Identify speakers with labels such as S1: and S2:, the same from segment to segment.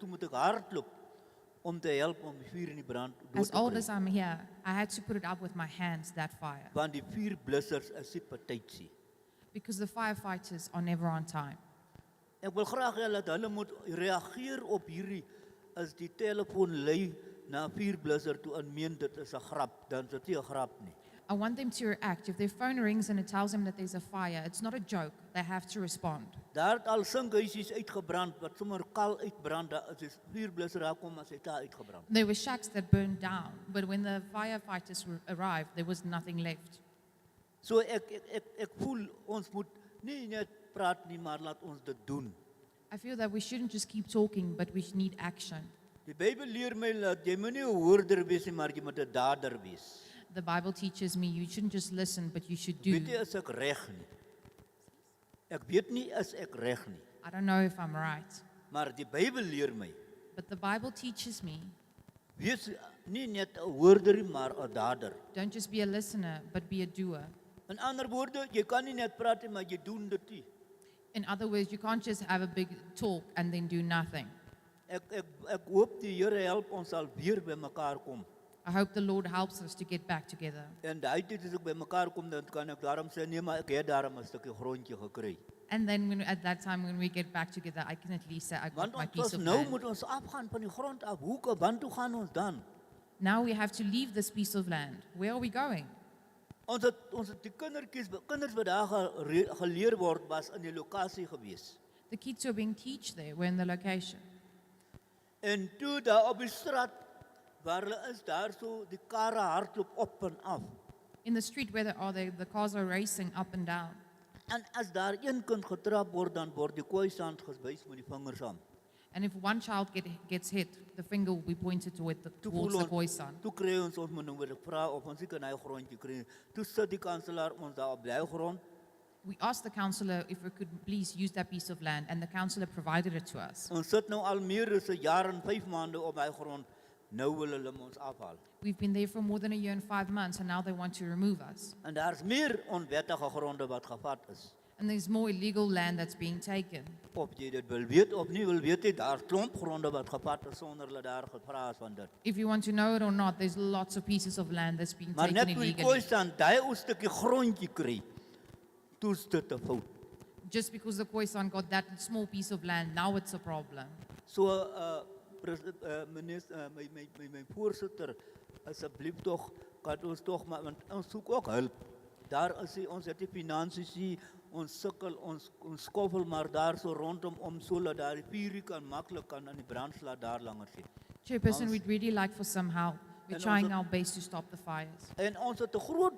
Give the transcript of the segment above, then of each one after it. S1: stuk hardloop om te help om die vuur in die brand dood
S2: As
S1: te
S2: old
S1: bring.
S2: as I'm here, I had to put it up with my hands, that fire,
S1: Want die vuurblussers is nie partytjie.
S2: because the firefighters are never on time.
S1: Ek wil graag hê dat hulle moet reageer op hierdie as die telefoon lei na 'n vuurblusser toe en meen dit is 'n grap, dan is dit nie 'n grap nie.
S2: I want them to react. If their phone rings and it tells them that there's a fire, it's not a joke. They have to respond.
S1: Daar het al sinkhuisies uitgebrand wat sommer kal uitbrand, daar is 'n vuurblusser daar kom as dit daar uitgebrand.
S2: There were shacks that burned down, but when the firefighters were, arrived, there was nothing left.
S1: So ek ek ek, ek voel ons moet nie net praat nie, maar laat ons dit doen.
S2: I feel that we shouldn't just keep talking, but we need action.
S1: Die Bybel leer my dat jy moenie 'n hoorder wees nie, maar jy moet 'n dader wees.
S2: The Bible teaches me you shouldn't just listen, but you should do.
S1: Weet jy as ek reg nie. Ek weet nie as ek reg nie,
S2: I don't know if I'm right,
S1: maar die Bybel leer my
S2: but the Bible teaches me
S1: Wees nie net 'n hoorder nie, maar 'n dader.
S2: don't just be a listener, but be a doer.
S1: In ander woorde, jy kan nie net praat nie, maar jy doen dit nie.
S2: In other words, you can't just have a big talk and then do nothing.
S1: Ek ek ek hoop die Here help ons al weer bymekaar kom.
S2: I hope the Lord helps us to get back together.
S1: En daai tyd as ek bymekaar kom, dan kan ek daarom sê nee, maar ek het daarom 'n stukkie grondjie gekry.
S2: And then when, at that time, when we get back together, I can at least say I got
S1: Want
S2: my
S1: ons
S2: piece
S1: ons
S2: of
S1: nou
S2: land.
S1: moet ons afgaan van die grond af. Hoe kan want toe gaan ons dan?
S2: Now we have to leave this piece of land. Where are we going?
S1: Ons het ons het die kindertjies, kinders wat daar gere- geleer word was in die lokasie gewees.
S2: The kids who are being teached there were in the location.
S1: En toe daar op die straat waar hulle is daar so die karre hardloop op en af.
S2: In the street where they are, they, the cars are racing up and down.
S1: En as daar een kind getrap word, dan word die kooisand gewys met die vingers aan.
S2: And if one child get, gets hit, the finger will be pointed toward the,
S1: Toe
S2: towards the
S1: voel
S2: boy
S1: ons,
S2: son.
S1: toe kry ons ons moet nou weer vra of ons nie kan hy grondjie kry. nie. Toe sit die kanselaar ons daar op bly grond
S2: We asked the counselor if we could please use that piece of land, and the counselor provided it to us.
S1: Ons sit nou al meer as 'n jaar en 5 maande op hy grond. Nou wil hulle ons afhaal.
S2: We've been there for more than a year and five months, and now they want to remove us.
S1: En daar's meer onwettige gronde wat gevat is.
S2: And there's more illegal land that's being taken.
S1: Of jy dit wil weet of nie wil weet nie, daar's klomp gronde wat gevat is sonder hulle daar gevra is van dit.
S2: If you want to know it or not, there's lots of pieces of land that's being
S1: Maar net
S2: taken
S1: toe die
S2: illegally.
S1: kooisand daai ou stukkie grondjie kry, toe is dit 'n fout.
S2: Just because the Khoisan got that small piece of land, now it's a problem.
S1: So uh president uh, minister uh, my my my my voorsitter asseblief tog kan ons tog maar want ons soek ook hulp. Daar is die, ons het die finansies hier, ons sukkel ons ons skoffel maar daar so rondom om sodat daar die vuurie kan maklik kan aan die brand slaat daar langer sit.
S2: Chairperson, we'd really like for some help. We're
S1: And
S2: trying
S1: also-
S2: our best to stop the fires.
S1: En ons het 'n groot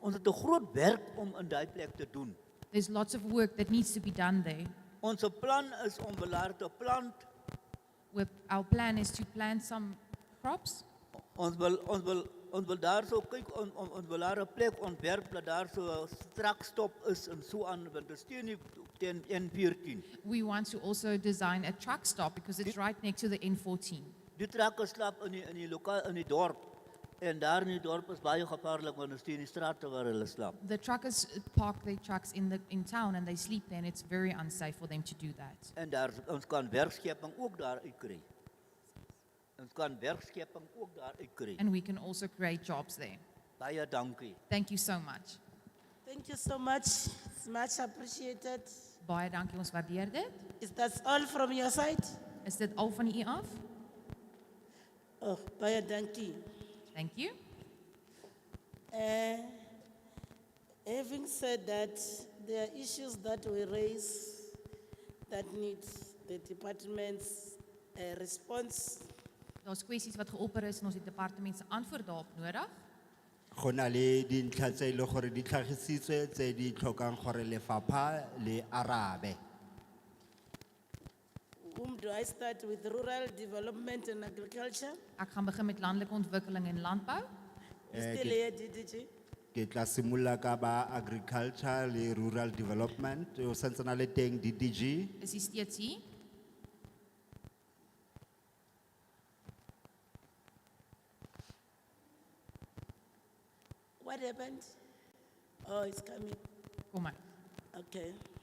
S1: ons het 'n groot werk om in daai plek te doen.
S2: There's lots of work that needs to be done there.
S1: Ons plan is om belaar te plant.
S2: With, our plan is to plant some crops.
S1: Ons wil ons wil ons wil daar so kyk on, on, ons wil daar 'n plek ontwerp dat daar so 'n strak stop is en so aan want dit steen nie teen 114.
S2: We want to also design a truck stop because it's right next to the N14.
S1: Die trakke slaap in die, in die lokaal in die dorp en daar in die dorp is baie gevaarlik want dit steen die strate waar hulle slaap.
S2: The truckers park their trucks in, the, in town and they sleep there, and it's very unsafe for them to do that.
S1: En daar ons kan werkskepping ook daar uitkry. Ons kan werkskepping ook daar uitkry.
S2: And we can also create jobs there.
S1: Baie dankie.
S2: Thank you so much.
S3: Thank you so much. It's much appreciated.
S2: Baie dankie, ons waardeer dit.
S3: Is that all from your side?
S2: Is dit al van u af?
S3: Oh, Baya Danki.
S2: Thank you.
S3: Uh, having said that, there are issues that we raise that need the department's uh, response.
S2: Daar's kwessies wat geopper is en ons het departement se antwoord daarop nodig.
S4: Gona le dintlha tse e leng gore di tlhagisitswe tse di tlhokang gore lefapha le arabe.
S3: Whom do I start with? Rural development and agriculture?
S2: Ek gaan begin met landelike ontwikkeling en landbou.
S3: You
S4: Eh,
S3: still
S4: ke-
S3: here, DDG?
S4: Ke tla simolola ka ba agriculture le rural development, o santse na le teng DDG,
S2: Is hy steeds hier?
S3: What happened? Oh, it's coming.
S2: Kom maar.
S3: Okay.